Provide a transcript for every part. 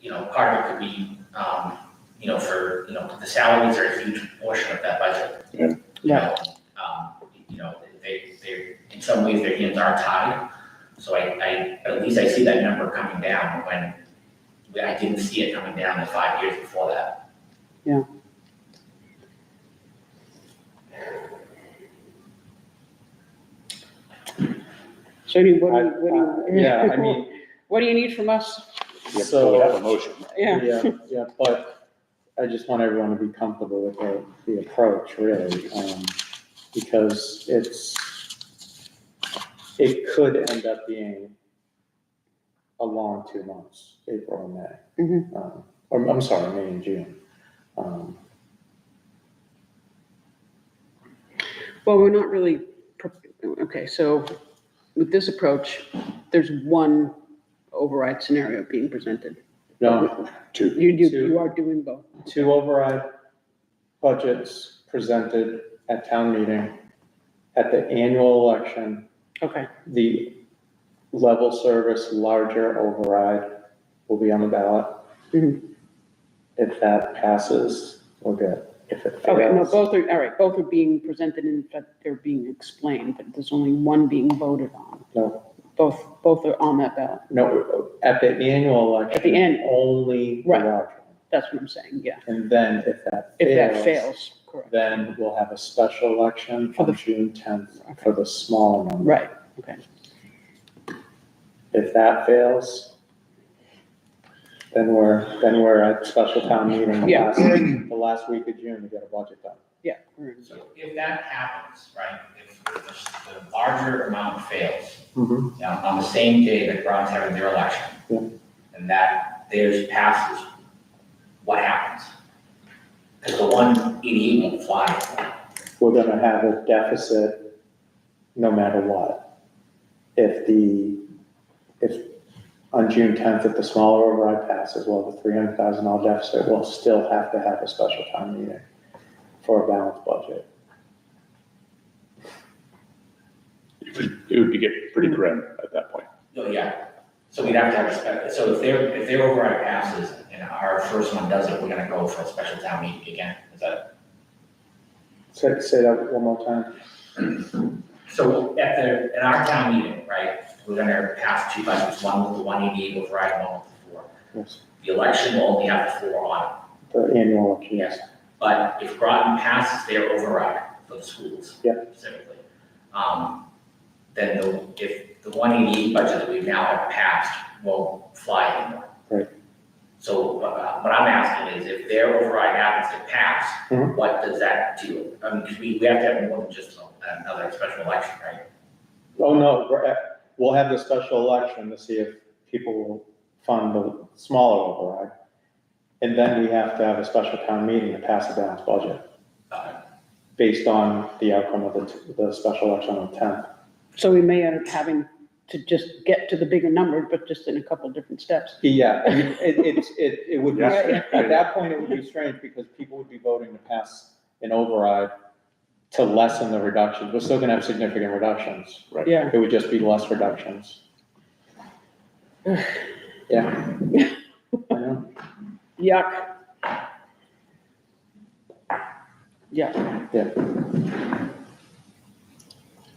you know, part of it could be, um, you know, for, you know, the salaries are a huge portion of that budget. Yeah. You know, um, you know, they, they, in some ways, their hands are tied, so I, I, at least I see that number coming down when I didn't see it coming down in five years before that. Yeah. So do you, what do you, what do you? Yeah, I mean, What do you need from us? Yeah, so So- we have a motion. Yeah, yeah, yeah, but I just want everyone to be comfortable with the, the approach, really, um, because it's, it could end up being a long two months, April and May. Um, Or, I'm sorry, May and June. Um, well, we're not really, pro- okay, so with this approach, there's one override scenario being presented. No, Two. You do, Two. you are doing both. two override budgets presented at town meeting, at the annual election, Okay, the level service larger override will be on the ballot. Mhm. If that passes, we're good. If it okay, no, fails, both are, all right, both are being presented in fact they're being explained, but there's only one being voted on. no, Both, both are on that ballot. no, at the annual election. At the end. Only the Right. larger. That's what I'm saying, yeah. And then if that If that fails, correct. Then we'll have a special election For the- on June tenth for the smaller number. Right, okay. If that fails, then we're, then we're at special town meeting the Yeah. last, the last week of June to get a budget done. Yeah. we're in. So if that happens, right, if the the larger amount fails, Mhm. you know, on the same day that Brown's having their election. Yeah. And that theirs passes, what happens? Because the one eighty-eight won't fly. We're gonna have a deficit no matter what. If the, if on June tenth, if the smaller override passes, well, the three hundred thousand dollar deficit, we'll still have to have a special town meeting for a balanced budget. It would- It would be get pretty grim at that point. Oh, yeah. So we'd have to have a spe- so if their, if their override passes and our first one doesn't, we're gonna go for a special town meeting again. Is that? Say, say that one more time. So at the, at our town meeting, right, we're gonna pass two budgets, one with the one eighty-eight override, one with the four. Yes. The election will only have the four on it. The annual election, yes. Yes, but if Groton passes their override for the schools. Yeah. Specifically, um, then the, if the one eighty-eight budget that we now have passed won't fly anymore. Right. So, uh, what I'm asking is if their override happens to pass, Mhm. what does that do? I mean, 'cause we, we have to have more than just another special election, right? Oh, no, we're at- we'll have the special election to see if people will fund the smaller override. And then we have to have a special town meeting to pass a balanced budget Uh, based on the outcome of the, the special election on the tenth. So we may end up having to just get to the bigger number, but just in a couple of different steps. Yeah, it, it's, it, it would be, Yeah. strange. at that point, it would be strange because people would be voting to pass an override to lessen the reductions. We're still gonna have significant reductions. Yeah. It would just be less reductions. Yeah. I know. Yuck. Yeah,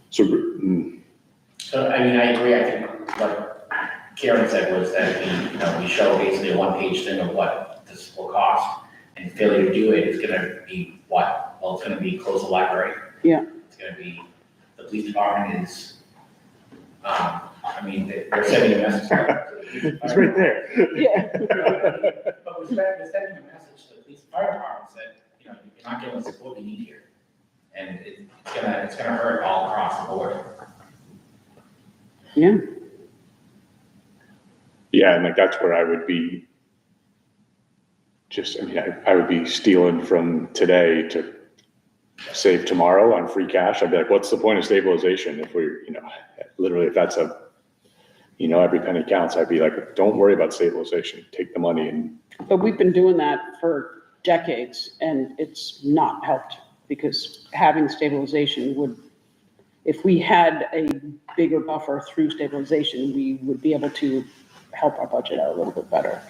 So, mm, So, I mean, I agree, I think what Karen said was that we, you know, we show basically a one-page thing of what this will cost, and failure to do it is gonna be what? Well, it's gonna be close the library. Yeah. It's gonna be, the police department is, um, I mean, they- they're sending a message. it's right there. yeah, But we're sending, we're sending a message to the police fire departments that, you know, you're not giving us what we need here. And it- it's gonna, it's gonna hurt all across the board. yeah, Yeah, and like that's where I would be. Just, I mean, I, I would be stealing from today to save tomorrow on free cash. I'd be like, what's the point of stabilization if we're, you know, literally if that's a, you know, every penny counts, I'd be like, don't worry about stabilization. Take the money and but we've been doing that for decades and it's not helped because having stabilization would, if we had a bigger buffer through stabilization, we would be able to help our budget out a little bit better.